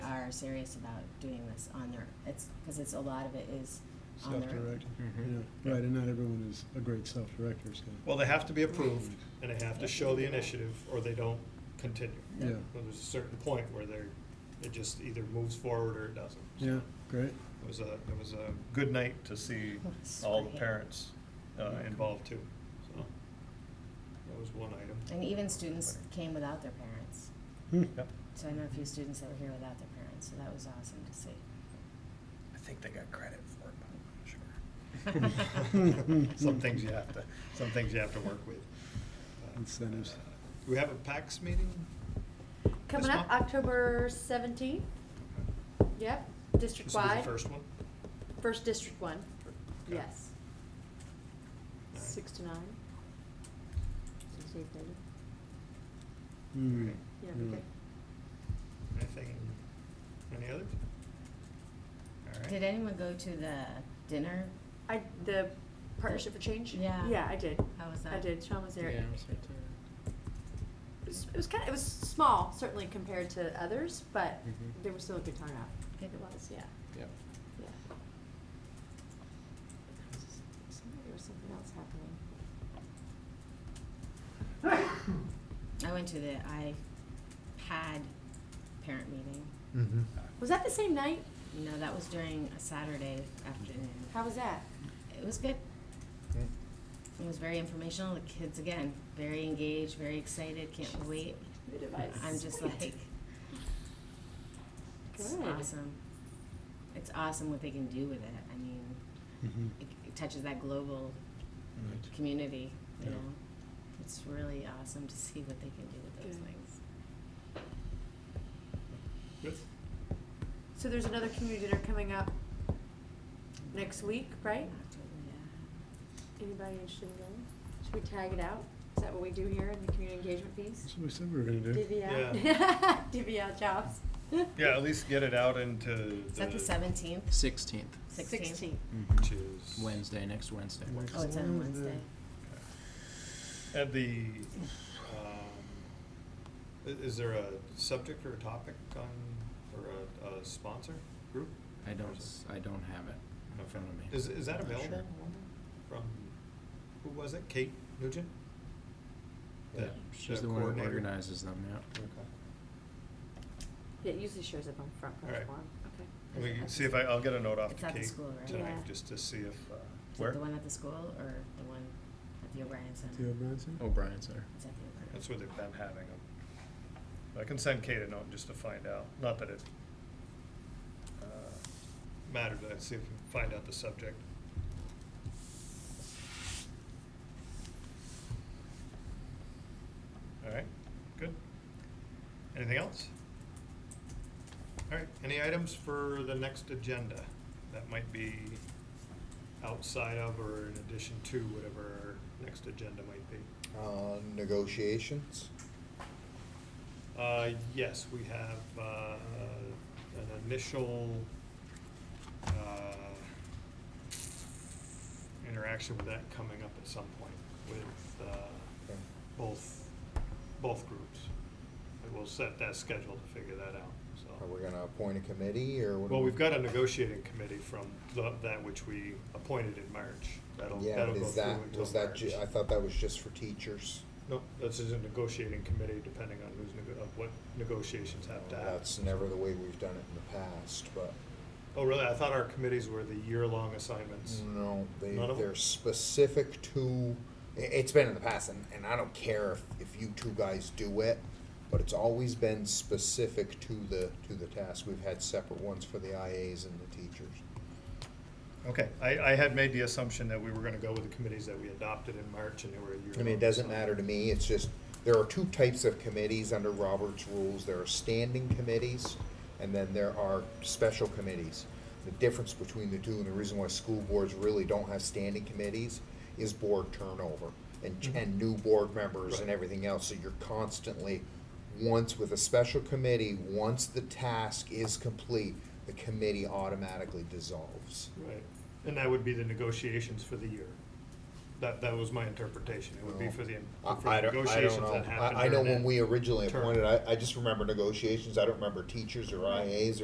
are serious about doing this on their, it's, because it's, a lot of it is on their. Self-directed, Mhm. yeah, right, and not everyone is a great self-director, so. Well, they have to be approved, and they have to show the initiative, or they don't continue. Yeah, Well, There's a certain point where they're, it just either moves forward or it doesn't. yeah, great, It was a, it was a good night to see all the parents uh, involved too, so. That was one item. And even students came without their parents. Hmm. Yep. So I know a few students that were here without their parents, so that was awesome to see. I think they got credit for it, but Some things you have to, some things you have to work with. Uh, Incentives. We have a PAX meeting? Coming This up, month? October seventeenth, yep, This will be the district-wide, first one? first district one, Okay. yes, All right. six to nine. Six to eight thirty, Hmm. Okay. yeah, okay. Anything, any others? All right. Did anyone go to the dinner? I, the Partnership for Change? Yeah. Yeah, I did, How was that? I did, Sean was there. Yeah, It I was there too. was, it was kinda, it was small, certainly compared to others, but Mm-hmm. Mhm. there was still a good turnout. Good. It was, yeah, Yeah. yeah. There was something else happening. I went to the iPad parent meeting. Hmm. Was that the same night? No, that was during a Saturday afternoon. How was that? It was good. It was very informational. The kids, again, very engaged, very excited, can't wait. The device. I'm just like, it's Good. awesome. It's awesome what they can do with it. I mean, Mhm. it, it touches that global Right. community, you Yeah. know? It's really awesome to see what they can do with those Good. things. Good. So there's another community dinner coming up next week, right? October, Anybody interested in going? Should we tag it out? Is that what we do here in the community engagement piece? That's what we said we were gonna do. Divvy out, divvy out jobs. Yeah, at least get it out into the. Is that the seventeenth, Sixteenth, sixteenth? Sixteen. Which is. Wednesday, next Wednesday. Next Oh, it's on Wednesday. At the, um, i- is there a subject or a topic on, or a, a sponsor group? I don't, s- I don't have it in front of me. Is, is that Not sure. available from, who was it, Kate Nugent? Yeah, The- she's the the one who coordinator? organizes them, yeah. Okay. Yeah, it usually shows up on front All porch right. forum. Okay. We can see if I, I'll get a note off It's to at the Kate school, right? Yeah. tonight, just to see if, uh, Is where? it the one at the school or the one at the O'Brien Center? Theo Bronson? O'Brien's Oh, there. It's at the O'Brien. That's where they've been having them. I can send Kate a note just to find out, not that it uh, mattered, but I'd see if we can find out the subject. All right, good. Anything else? All right, any items for the next agenda that might be outside of or in addition to whatever our next agenda might be? Uh, negotiations. Uh, yes, we have, uh, an initial, uh, interaction with that coming up at some point with, uh, Okay. both, both groups. And we'll set that schedule to figure that out, Are Oh, we so. gonna appoint a committee or what? do Well, we- we've got a negotiating committee from the, that which we appointed in March. That'll, Yeah, that'll but go is through until that, March. was that, ju- I thought that was just for teachers. No, this is a negotiating committee depending on who's, nego- of what negotiations have to happen. Oh, That's never the way we've done it in the past, but Oh, really? I thought our committees were the year-long assignments. no, they, None of 'em? they're specific to, i- it's been in the past and, and I don't care if, if you two guys do it, but it's always been specific to the, to the task. We've had separate ones for the IAs and the teachers. Okay, I, I had made the assumption that we were gonna go with the committees that we adopted in March and they were a year. I mean, it doesn't matter to me, it's just, there are two types of committees under Robert's rules, there are standing committees, and then there are special committees. The difference between the two, and the reason why school boards really don't have standing committees, is board turnover, and, and new board members and Right. everything else, so you're constantly, once with a special committee, once the task is complete, the committee automatically dissolves. Right, and that would be the negotiations for the year. That, that was my interpretation. It would be for the, I- for the I don't- I don't negotiations know. that happened I, I know during when that we originally term. appointed, I, I just remember negotiations, I don't remember teachers or IAs